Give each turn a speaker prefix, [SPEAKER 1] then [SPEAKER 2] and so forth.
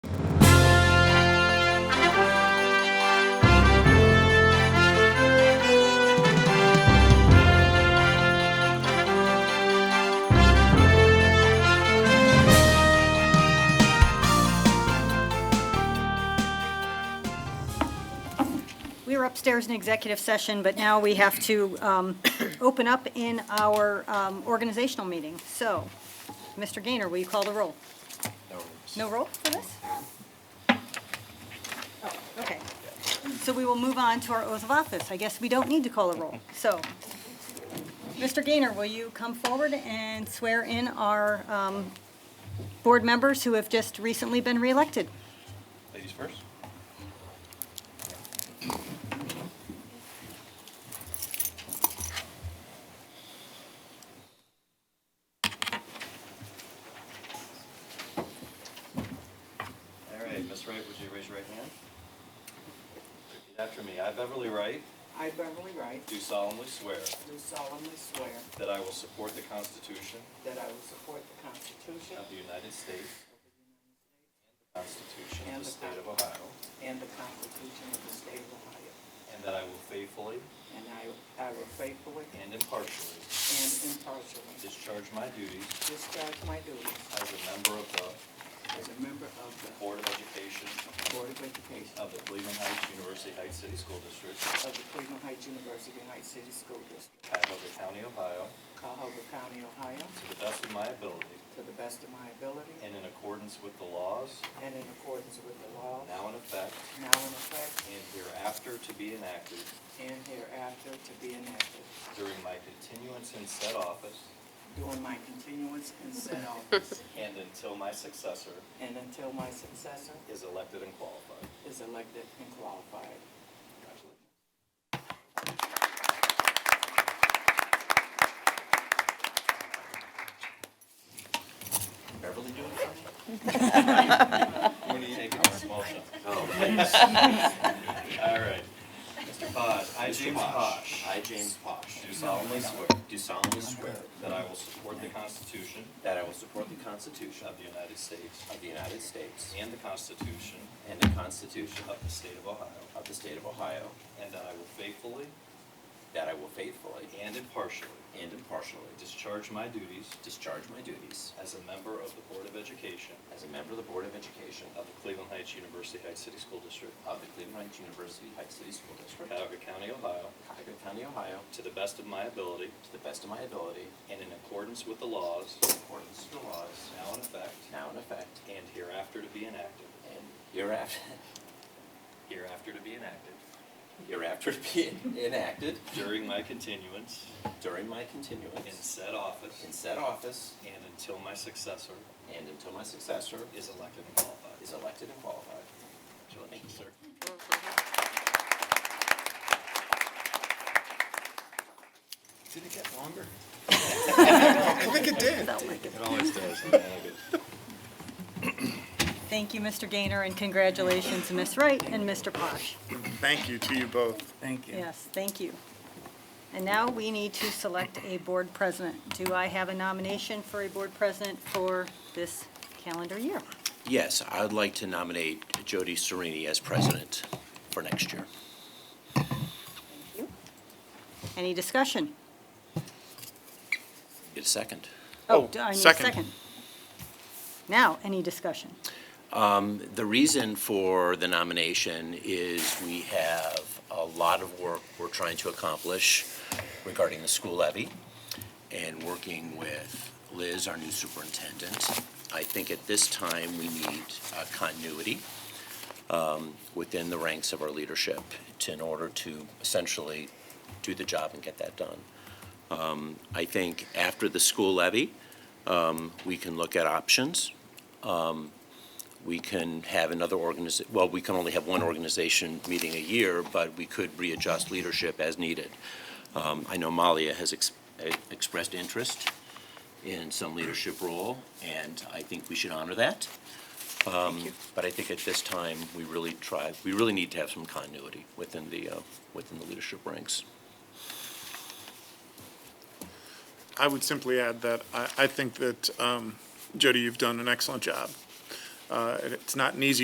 [SPEAKER 1] were upstairs in executive session, but now we have to um, open up in our um, organizational meeting. So, Mr. Gaynor, will you call the roll? No roll for this? Oh, okay. So we will move on to our oath of office. I guess we don't need to call a roll. So, Mr. Gaynor, will you come forward and swear in our um, board members who have just recently been reelected?
[SPEAKER 2] Ladies first. All right, Miss Wright, would you raise your right hand? Repeat after me. I, Beverly Wright,
[SPEAKER 3] I, Beverly Wright,
[SPEAKER 2] do solemnly swear
[SPEAKER 3] do solemnly swear
[SPEAKER 2] that I will support the Constitution
[SPEAKER 3] that I will support the Constitution
[SPEAKER 2] of the United States and the Constitution of
[SPEAKER 3] And
[SPEAKER 2] the
[SPEAKER 3] the
[SPEAKER 2] State of Ohio,
[SPEAKER 3] and the Constitution of the State of Ohio,
[SPEAKER 2] and that I will faithfully
[SPEAKER 3] and I I will faithfully
[SPEAKER 2] and impartially
[SPEAKER 3] and impartially
[SPEAKER 2] Discharge my duties
[SPEAKER 3] discharge my duties
[SPEAKER 2] as a member of the
[SPEAKER 3] as a member of
[SPEAKER 2] Board of Education
[SPEAKER 3] the Board of Education
[SPEAKER 2] of the Cleveland Heights University Heights City School District,
[SPEAKER 3] of the Cleveland Heights University Heights City School District,
[SPEAKER 2] Cuyahoga County, Ohio,
[SPEAKER 3] Cuyahoga County, Ohio,
[SPEAKER 2] to the best of my ability
[SPEAKER 3] to the best of my ability
[SPEAKER 2] and in accordance with the laws
[SPEAKER 3] and in accordance with the law
[SPEAKER 2] now in effect
[SPEAKER 3] now in effect
[SPEAKER 2] and hereafter to be enacted
[SPEAKER 3] and hereafter to be enacted
[SPEAKER 2] during my continuance in said office
[SPEAKER 3] during my continuance in said office
[SPEAKER 2] and until my successor
[SPEAKER 3] and until my successor
[SPEAKER 2] is elected and qualified.
[SPEAKER 3] is elected and qualified.
[SPEAKER 2] Congratulations. Beverly doing something? We're gonna take it in a small shot. All right. Mr. Posh, I, James Posh,
[SPEAKER 4] I, James Posh,
[SPEAKER 2] do solemnly swear
[SPEAKER 4] do solemnly swear
[SPEAKER 2] that I will support the Constitution
[SPEAKER 4] that I will support the Constitution
[SPEAKER 2] of the United States
[SPEAKER 4] of the United States
[SPEAKER 2] and the Constitution
[SPEAKER 4] and the Constitution
[SPEAKER 2] of the State of Ohio,
[SPEAKER 4] of the State of Ohio,
[SPEAKER 2] and that I will faithfully
[SPEAKER 4] that I will faithfully
[SPEAKER 2] and impartially
[SPEAKER 4] and impartially
[SPEAKER 2] discharge my duties
[SPEAKER 4] discharge my duties
[SPEAKER 2] As a member of the Board of Education
[SPEAKER 4] as a member of the Board of Education
[SPEAKER 2] of the Cleveland Heights University Heights City School District,
[SPEAKER 4] of the Cleveland Heights University Heights City School District,
[SPEAKER 2] Cuyahoga County, Ohio,
[SPEAKER 4] Cuyahoga County, Ohio,
[SPEAKER 2] to the best of my ability
[SPEAKER 4] to the best of my ability,
[SPEAKER 2] and in accordance with the laws
[SPEAKER 4] in accordance with the laws
[SPEAKER 2] now in effect
[SPEAKER 4] now in effect
[SPEAKER 2] and hereafter to be enacted,
[SPEAKER 4] and hereafter,
[SPEAKER 2] hereafter to be enacted,
[SPEAKER 4] hereafter be enacted
[SPEAKER 2] during my continuance
[SPEAKER 4] during my
[SPEAKER 2] in
[SPEAKER 4] continuance
[SPEAKER 2] said office
[SPEAKER 4] in said office
[SPEAKER 2] and until my successor
[SPEAKER 4] and until my successor
[SPEAKER 2] is elected and qualified.
[SPEAKER 4] is elected and qualified.
[SPEAKER 2] Thank you, sir.
[SPEAKER 5] Did it get longer? I think it did. It always does.
[SPEAKER 1] Thank you, Mr. Gaynor, and congratulations, Ms. Wright and Mr. Posh.
[SPEAKER 5] Thank you to you both. Thank
[SPEAKER 1] Yes, thank you. And now we need to select a board president. Do I have a nomination for a board president for this calendar year?
[SPEAKER 4] Yes, I would like to nominate Jody Serini as president for next year.
[SPEAKER 1] Thank you. Any discussion?
[SPEAKER 4] Get a second.
[SPEAKER 1] Oh,
[SPEAKER 5] Oh,
[SPEAKER 1] do I need a
[SPEAKER 5] second.
[SPEAKER 1] second? Now, any discussion?
[SPEAKER 4] Um, The reason for the nomination is we have a lot of work we're trying to accomplish regarding the school levy and working with Liz, our new superintendent. I think at this time, we need uh, continuity um, within the ranks of our leadership to- in order to essentially do the job and get that done. Um, I think after the school levy, um, we can look at options we can have another organiz, well, we can only have one organization meeting a year, but we could readjust leadership as needed. Um, I know Malia has ex- eh, expressed interest in some leadership role, and I think we should honor that. Um, But I think at this time, we really try, we really need to have some continuity within the, uh, within the leadership ranks.
[SPEAKER 5] I would simply add that I, I think that, um, Jody, you've done an excellent job. Uh, and it's not an easy